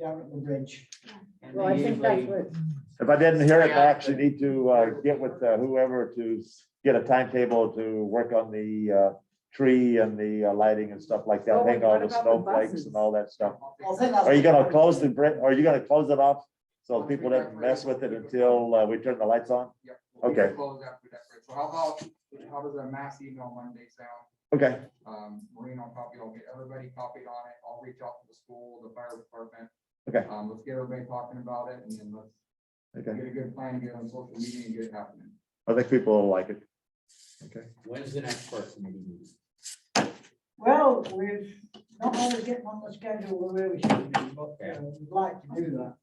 down at the bridge. And Well, I they think that's usually- what, If I didn't hear it, Max, you need to uh, get with uh, whoever to s- get a timetable to work on the uh, tree and the uh, lighting and stuff like that, Oh, hang and all what the about the snowflakes buses? and all that stuff. Well, then I'll- Are you gonna close the, bri- are you gonna close it off so people don't mess with it until uh, we turn the lights on? Yep. we'll Okay. close after that bridge. So how about, how does a mass email Monday sound? Okay, Um, Maureen will copy, I'll get everybody copied on it. I'll reach out to the school, the fire department. Okay. Um, let's get everybody talking about it and then let's okay. get a good plan, get on social media and get it happening. I think people will like it. Okay. When's the next park committee meeting? Well, we've not always getting on the schedule where we should be, but uh, we'd like to do that.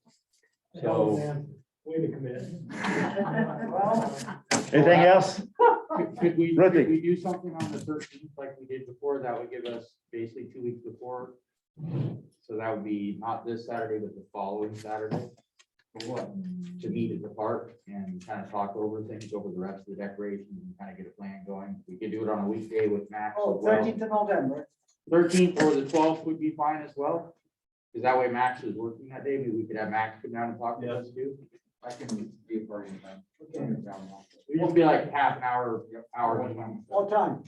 Oh, So- Way to commit. Well, Anything else? Could- Could we, Ricky. could we do something on the thirteenth like we did before? That would give us basically two weeks before. So that would be not this Saturday, but the following Saturday. For what? To meet at the park and kind of talk over things, over the rest of the decorations and kind of get a plan going. We could do it on a weekday with Max as oh, well. thirteenth of November. Thirteenth or the twelfth would be fine as well. Cause that way Max is working that day. Maybe we could have Max come down and talk to us too. I can be a part of Okay. that. It'd just be like half an hour, hour. What time?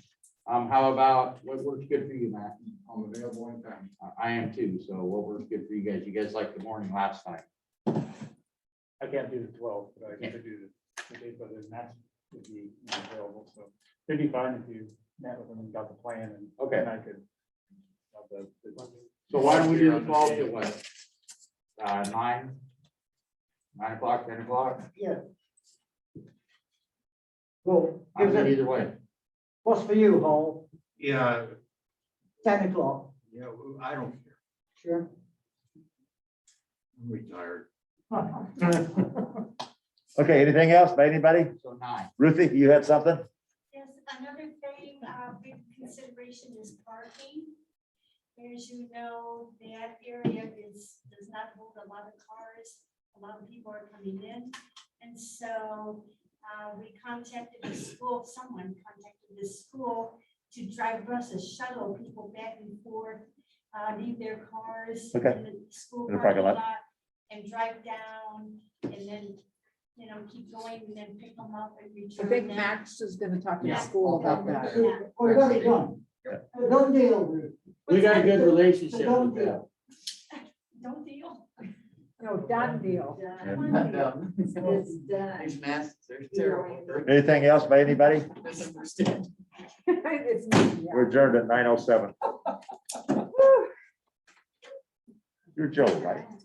Um, how about, what works good for you, Max? I'm available anytime. I- I am too, so what works good for you guys? You guys liked the morning last time. I can't do the twelve, but I Yeah. could do the- the date, but then that would be available, so it'd be fine if you met with them and got the plan and. Okay. And I could. have the- the- So why don't we do the twelve to what? Uh, nine? Nine o'clock, ten o'clock? Yeah. Well, I'm gives good it, either way. what's for you, Hall? Yeah, Ten o'clock, yeah, I don't care. sure. I'm retired. Okay, anything else by anybody? So nine. Ruthie, you had something? Yes, another thing, uh, big consideration is parking. As you know, that area is, does not hold a lot of cars, a lot of people are coming in. And so, uh, we contacted the school, someone contacted the school to drive buses, shuttle people back and forth, uh, leave their cars in Okay. the school In the parking parking lot. lot and drive down and then, you know, keep going and then pick them up and I return them. think Max is gonna talk to the Yeah. school about that. We've already done. Uh, Don't deal with it. We got a good It's a relationship done with them. deal. Don't deal. No, done deal. These It's done. masks are terrible. Anything else by anybody? Misunderstand. It's, yeah. We're adjourned at nine oh seven. You're joking, right?